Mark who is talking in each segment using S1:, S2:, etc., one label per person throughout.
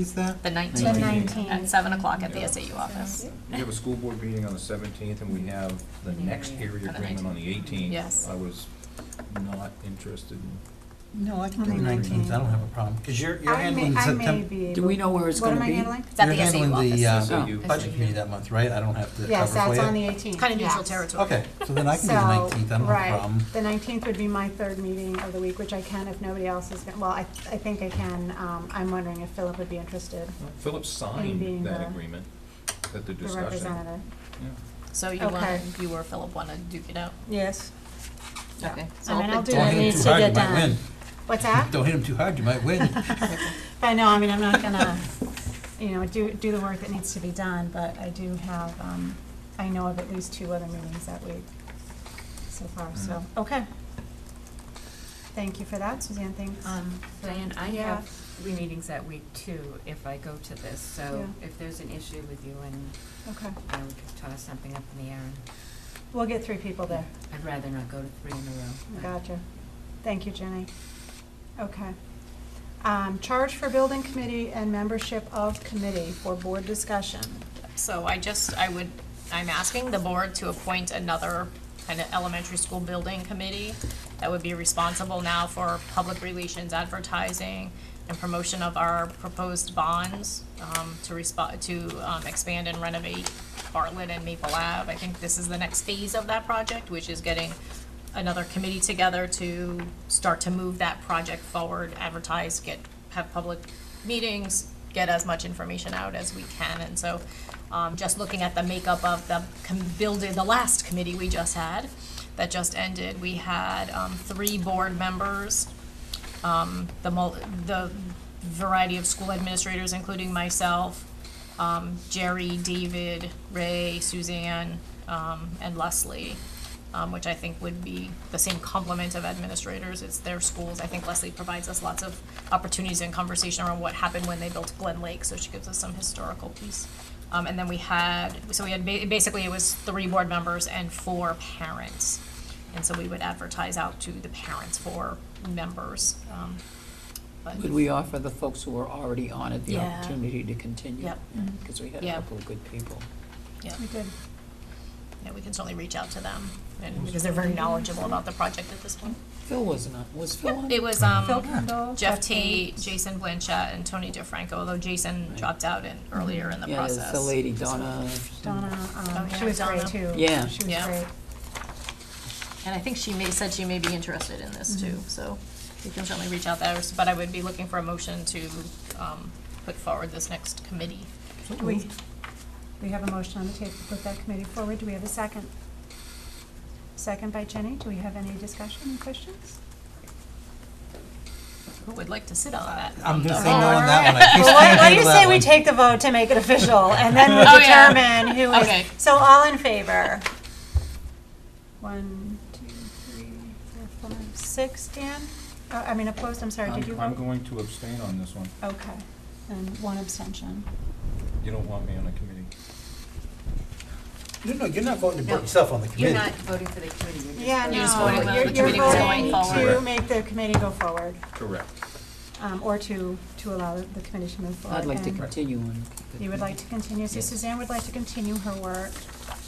S1: is that?
S2: The
S3: The
S2: 19th,
S3: 19th.
S2: at 7 o'clock at the SAU office.
S4: We have a school board meeting on the seventeenth, and we have the next area
S2: On the
S4: agreement on the
S2: 19th.
S4: eighteenth.
S2: Yes.
S5: Uh,
S4: I was not interested in,
S5: No, I can
S3: On
S5: do
S3: the
S5: nineteenth, I don't
S3: 19th.
S5: have a problem, because you're, you're
S3: I may,
S5: handling
S3: I may
S5: September.
S3: be.
S6: Do we know where it's gonna
S3: What am
S6: be?
S3: I handling?
S2: It's at the SAU
S5: You're handling the
S2: office. Oh,
S5: uh,
S4: SAU.
S5: budget committee that month, right? I don't have to cover
S3: Yes,
S5: for you.
S3: that's on the 18th.
S2: Kind of neutral
S3: yes.
S2: territory.
S5: Okay, so then I can do
S3: So,
S5: the nineteenth, I don't have
S3: right,
S5: a problem.
S3: The 19th would be my third meeting of the week, which I can if nobody else is, gonna- well, I, I think I can. Um, I'm wondering if Philip would be interested,
S4: Philip
S3: being
S4: signed that
S3: the-
S4: agreement that they're
S3: the
S4: discussing.
S3: representative.
S4: Yeah.
S2: So you want,
S3: Okay.
S2: you or Philip want to duke it out?
S5: Yes.
S2: Okay.
S3: I mean, I'll do
S5: Don't
S3: it,
S5: hit him
S3: needs
S5: too
S3: to
S5: hard, you
S3: get
S5: might
S3: done.
S5: win.
S3: What's that?
S5: Don't hit him too hard, you might win.
S3: But no, I mean, I'm not gonna, you know, do, do the work that needs to be done, but I do have, um, I know of at least two other meetings that week so far, so,
S2: Mm-hmm.
S3: okay. Thank you for that, Suzanne, thanks.
S7: Um, Diane, I
S3: Yeah.
S7: have three meetings that week too, if I go to this, so
S3: Yeah.
S7: if there's an issue with you and,
S3: Okay,
S7: you know, we could toss something up in the air, and
S3: we'll get three people there.
S7: I'd rather not go to three in a row. but-
S3: Gotcha. Thank you, Jenny. Okay. Um, charge for building committee and membership of committee for board discussion.
S2: So I just, I would, I'm asking the board to appoint another kind of elementary school building committee that would be responsible now for public relations, advertising, and promotion of our proposed bonds, um, to respond, to, um, expand and renovate Bartlett and Maple Ave. I think this is the next phase of that project, which is getting another committee together to start to move that project forward, advertise, get, have public meetings, get as much information out as we can. And so, um, just looking at the makeup of the com- building, the last committee we just had, that just ended, we had, um, three board members, um, the mul- the variety of school administrators, including myself, um, Jerry, David, Ray, Suzanne, um, and Leslie, um, which I think would be the same complement of administrators, it's their schools. I think Leslie provides us lots of opportunities and conversation around what happened when they built Glen Lake, so she gives us some historical piece. Um, and then we had, so we had, ba- basically it was three board members and four parents. And so we would advertise out to the parents for members, um, but.
S6: Would we offer the folks who are already on it the
S2: Yeah.
S6: opportunity to continue?
S2: Yep.
S3: Mm-hmm.
S6: Because we had a
S2: Yeah.
S6: couple of good people.
S2: Yeah.
S3: We did.
S2: Yeah, we can certainly reach out to them, and, because they're very knowledgeable about the project at this point.
S6: Phil wasn't on, was Phil on?
S2: It was,
S3: Phil
S2: um,
S3: Kendall.
S2: Jeff Tate, Jason Blanchett, and Tony DeFranco, although Jason dropped out in, earlier in the
S6: Yeah,
S2: process.
S6: there's the lady Donna.
S3: Donna, um,
S2: Oh,
S3: she
S2: yeah,
S3: was great
S2: Donna.
S3: too.
S6: Yeah.
S3: She was
S2: Yeah.
S3: great.
S2: And I think she may, said she may be interested in this too, so we can certainly reach out there, but I would be looking for a motion to, um, put forward this next committee.
S3: Do we, we have a motion on the table to put that committee forward. Do we have a second? Second by Jenny. Do we have any discussion and questions?
S2: Who would like to sit on that?
S5: I'm gonna say
S2: Oh,
S5: no on that one. I think
S3: Well, why,
S5: we
S3: why do
S5: table
S3: you
S5: that
S3: say we
S5: one.
S3: take the vote to make it official, and then we
S2: Oh, yeah.
S3: determine who is.
S2: Okay.
S3: So all in favor? One, two, three, four, five, six, Dan? Uh, I mean opposed, I'm sorry, did you
S4: I'm, I'm
S3: vote?
S4: going to abstain on this one.
S3: Okay, and one abstention.
S4: You don't want me on a committee.
S5: No, no, you're not voting to
S7: No.
S5: put yourself on the committee.
S7: You're not voting for the committee, you're just.
S3: Yeah,
S7: voting
S2: You're just
S3: no,
S2: voting whether
S3: you're,
S2: the
S3: you're
S2: committee's going
S3: voting to
S2: forward.
S3: make the committee go forward,
S4: Correct.
S3: um, or to, to allow the the committee to move forward.
S6: I'd like to
S3: and-
S6: continue on.
S3: You would like to continue, so
S6: Yes.
S3: Suzanne would like to continue her work.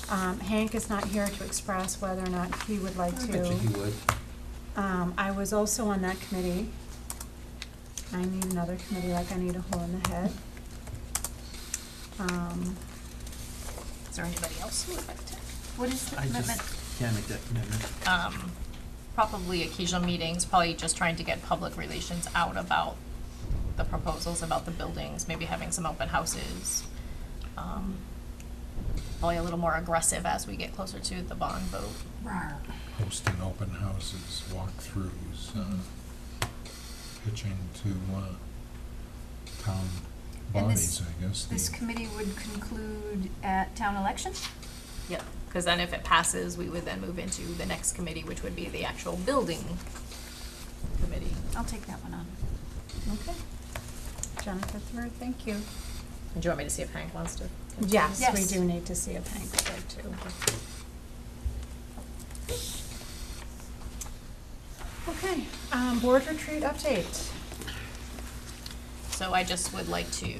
S3: Um, Hank is not here to express whether or not he would like
S5: I
S3: to.
S5: bet you he would.
S3: Um, I was also on that committee. I need another committee, like I need a hole in the head. Um,
S2: Is there anybody else who would like to?
S7: What is the
S5: I
S7: commitment?
S5: just can't make that commitment.
S2: um, probably occasional meetings, probably just trying to get public relations out about the proposals, about the buildings, maybe having some open houses. Um, Probably a little more aggressive as we get closer to the bond vote.
S8: hosting open houses, walkthroughs, uh, pitching to uh, town
S9: And this-
S8: bodies, I guess. the-
S9: This committee would conclude at town election?
S2: Yep. Because then if it passes, we would then move into the next committee, which would be the actual building committee.
S3: Oh.
S9: I'll take that one on.
S3: okay. Jennifer Throer, thank you.
S2: And do you want me to see if Hank wants to? continue?
S3: Yes, we
S9: Yes.
S3: do need to see if Hank would like to. Okay, um, board retreat update.
S2: So I just would like to